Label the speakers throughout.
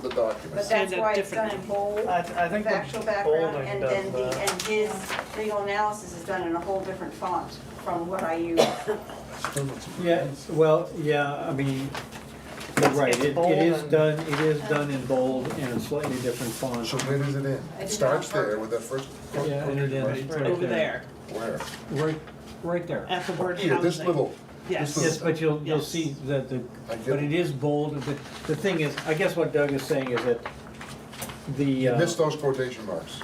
Speaker 1: But
Speaker 2: documents.
Speaker 1: that's
Speaker 3: Stand up
Speaker 1: why it's done in
Speaker 3: differently.
Speaker 1: bold,
Speaker 4: I, I think
Speaker 1: factual
Speaker 4: the
Speaker 1: background,
Speaker 4: bolding
Speaker 1: and
Speaker 4: does
Speaker 1: then the,
Speaker 4: that.
Speaker 1: and his legal analysis is done in a whole different font from what I use.
Speaker 5: Yeah, well, yeah, I mean, you're right,
Speaker 4: It's
Speaker 5: it,
Speaker 4: bold
Speaker 5: it is
Speaker 4: and-
Speaker 5: done, it is done in bold and a slightly different font.
Speaker 2: So where does it end? It starts there with that first.
Speaker 5: Yeah, and it ends right
Speaker 3: over there,
Speaker 2: Where?
Speaker 5: Right, right there.
Speaker 3: at the word housing.
Speaker 2: Here, this little,
Speaker 3: Yes.
Speaker 2: this
Speaker 5: Yes, but you'll, you'll
Speaker 3: Yes.
Speaker 5: see that the,
Speaker 2: I get
Speaker 5: but
Speaker 2: it.
Speaker 5: it is bold, the, the thing is, I guess what Doug is saying is that the,
Speaker 2: you
Speaker 5: uh,
Speaker 2: miss those quotation marks.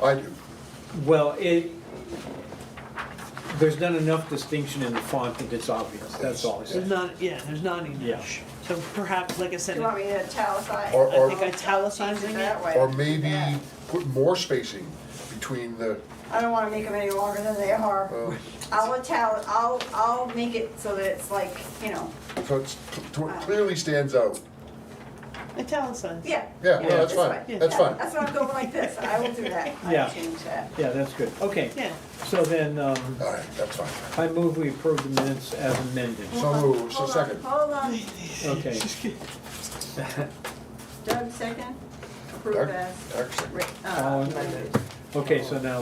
Speaker 2: I do.
Speaker 5: well, it, there's not enough distinction in the font that it's obvious, that's all I
Speaker 3: There's
Speaker 5: said.
Speaker 3: not, yeah, there's not enough. So perhaps, like I
Speaker 1: Do
Speaker 3: said,
Speaker 1: you want me to italicize?
Speaker 2: Or-
Speaker 3: I think italicizing
Speaker 1: That
Speaker 3: it,
Speaker 1: way.
Speaker 2: Or maybe
Speaker 1: Yeah.
Speaker 2: put more spacing between the,
Speaker 1: I don't wanna make them any longer than they are.
Speaker 2: uh,
Speaker 1: I'll ital, I'll, I'll make it so that it's like, you know,
Speaker 2: so it's- so it clearly stands out.
Speaker 3: italicize.
Speaker 1: yeah.
Speaker 2: Yeah, no, that's
Speaker 1: this
Speaker 2: fine,
Speaker 1: way.
Speaker 2: that's fine.
Speaker 1: That's why I'm going like this, I will do that,
Speaker 5: Yeah.
Speaker 1: I'll change that.
Speaker 5: Yeah, that's good, okay.
Speaker 3: Yeah,
Speaker 5: So then, um,
Speaker 2: All right, that's fine.
Speaker 5: I move we approve the minutes as amended,
Speaker 1: Oh,
Speaker 2: So moved, so
Speaker 1: Hold on,
Speaker 2: second.
Speaker 1: Hold on,
Speaker 5: okay.
Speaker 1: Doug, second, approve
Speaker 2: Doug,
Speaker 1: as.
Speaker 2: Doug, second.
Speaker 1: writ- uh,
Speaker 5: All in-
Speaker 1: amended.
Speaker 5: Okay, so now,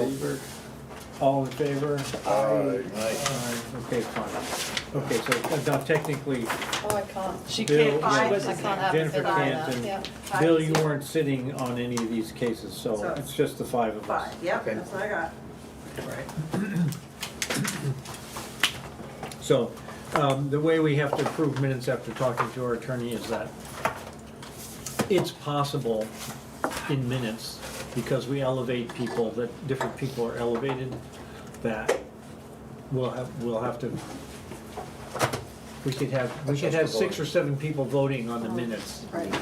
Speaker 5: all in favor?
Speaker 2: Aye.
Speaker 5: Aye. Okay, fine. Okay, so uh, now technically,
Speaker 6: Oh, I can't.
Speaker 3: she
Speaker 5: Bill-
Speaker 3: can't, she
Speaker 6: I
Speaker 3: wasn't
Speaker 6: can't
Speaker 3: there.
Speaker 6: have it
Speaker 5: Jennifer
Speaker 6: for that,
Speaker 5: Canton.
Speaker 6: yeah.
Speaker 5: Bill, you weren't sitting on any of these cases,
Speaker 1: So-
Speaker 5: so it's just the five of us.
Speaker 1: Five, yep,
Speaker 5: Okay.
Speaker 1: that's what I got.
Speaker 5: So, um, the way we have to approve minutes after talking to our attorney is that it's possible in minutes, because we elevate people, that different people are elevated, that we'll have, we'll have to, we could have, we could have six or seven people voting on the minutes,
Speaker 1: Right.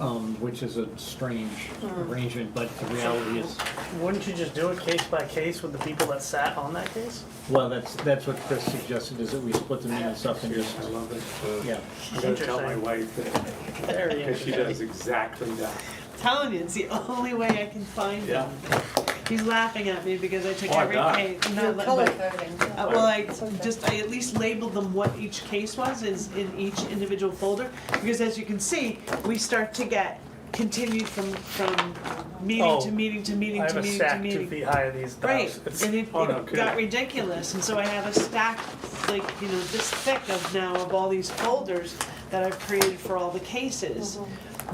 Speaker 5: um, which is a strange arrangement, but the reality is,
Speaker 4: Wouldn't you just do it case by case with the people that sat on that case?
Speaker 5: well, that's, that's what Chris suggested, is that we split the minutes up and just,
Speaker 7: I love it.
Speaker 5: yeah.
Speaker 7: I'm gonna tell my wife that,
Speaker 4: Very
Speaker 7: because she does
Speaker 4: interesting.
Speaker 7: exactly that.
Speaker 3: Telling you, it's the only way I can find
Speaker 7: Yeah.
Speaker 3: him. He's laughing at me because I took
Speaker 7: Oh, I
Speaker 3: every
Speaker 7: got
Speaker 3: case.
Speaker 6: You're
Speaker 3: not-
Speaker 6: color
Speaker 3: but-
Speaker 6: coding.
Speaker 3: Uh, Well, I just, I at least labeled them what each case was is in each individual folder, because as you can see, we start to get continued from, from meeting
Speaker 4: Oh,
Speaker 3: to meeting to
Speaker 4: I
Speaker 3: meeting
Speaker 4: have
Speaker 3: to
Speaker 4: a
Speaker 3: meeting to
Speaker 4: stack two
Speaker 3: meeting.
Speaker 4: feet high of these
Speaker 3: Right,
Speaker 4: dogs.
Speaker 3: and
Speaker 4: It's-
Speaker 3: it it
Speaker 7: oh, no kidding.
Speaker 3: got ridiculous, and so I have a stack, like, you know, this thick of now of all these folders that I've created for all the cases.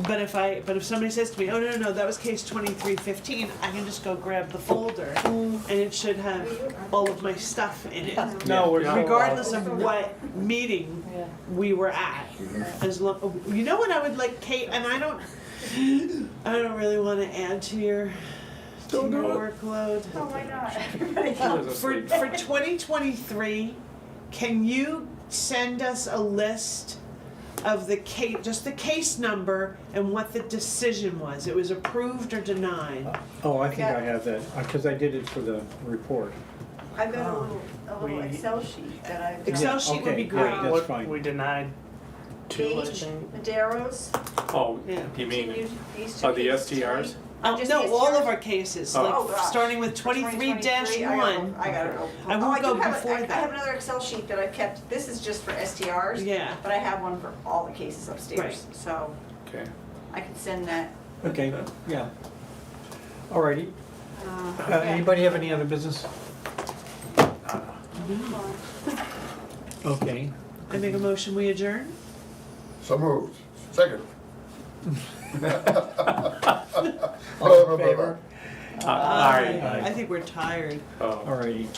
Speaker 3: But if I, but if somebody says to me, oh, no, no, no, that was case twenty-three fifteen, I can just go grab the folder, and it should have all of my stuff in it
Speaker 5: No, we're not allowed-
Speaker 3: regardless of what meeting
Speaker 6: Yeah.
Speaker 3: we were at. As lo- you know what I would like, Kate, and I don't, I don't really want to add to your, to your workload.
Speaker 1: Oh, why not? Everybody else.
Speaker 3: Uh, For, for 2023, can you send us a list of the case, just the case number and what the decision was? It was approved or denied?
Speaker 5: Oh, I think I have that, because I did it for the report.
Speaker 1: I've got a little, a little
Speaker 4: We-
Speaker 1: Excel sheet that I've.
Speaker 3: Um,
Speaker 1: done.
Speaker 3: Excel
Speaker 5: Yeah,
Speaker 3: sheet would be
Speaker 5: okay,
Speaker 3: great.
Speaker 5: yeah, That's
Speaker 4: What-
Speaker 5: fine.
Speaker 4: We denied two, I
Speaker 1: These
Speaker 4: think.
Speaker 1: Maderos.
Speaker 7: Oh,
Speaker 3: Yeah.
Speaker 7: you mean,
Speaker 1: continued- these two
Speaker 7: oh, the
Speaker 1: cases,
Speaker 7: STRs?
Speaker 3: Uh,
Speaker 1: Just
Speaker 3: no,
Speaker 1: the
Speaker 3: all of
Speaker 1: STRs?
Speaker 3: our cases,
Speaker 7: Oh.
Speaker 3: like
Speaker 1: Oh, gosh.
Speaker 3: starting with
Speaker 1: For
Speaker 3: 23 dash
Speaker 1: 2023, I gotta
Speaker 3: one.
Speaker 1: go- I gotta go.
Speaker 3: I won't
Speaker 1: Oh, do
Speaker 3: go
Speaker 1: have a-
Speaker 3: before
Speaker 1: I- I
Speaker 3: that.
Speaker 1: have another Excel sheet that I've kept, this is just for STRs.
Speaker 3: Yeah.
Speaker 1: But I have one for all the cases upstairs, so
Speaker 7: Okay.
Speaker 1: I can send that.
Speaker 5: Okay, yeah. All righty.
Speaker 1: uh,
Speaker 5: Uh,
Speaker 1: back.
Speaker 5: Anybody have any other business? Okay.
Speaker 3: I make a motion, we adjourn?
Speaker 2: So moved, second.
Speaker 5: All in favor?
Speaker 7: Uh, All right.
Speaker 3: I think we're tired.
Speaker 7: Uh, Oh.
Speaker 5: All righty.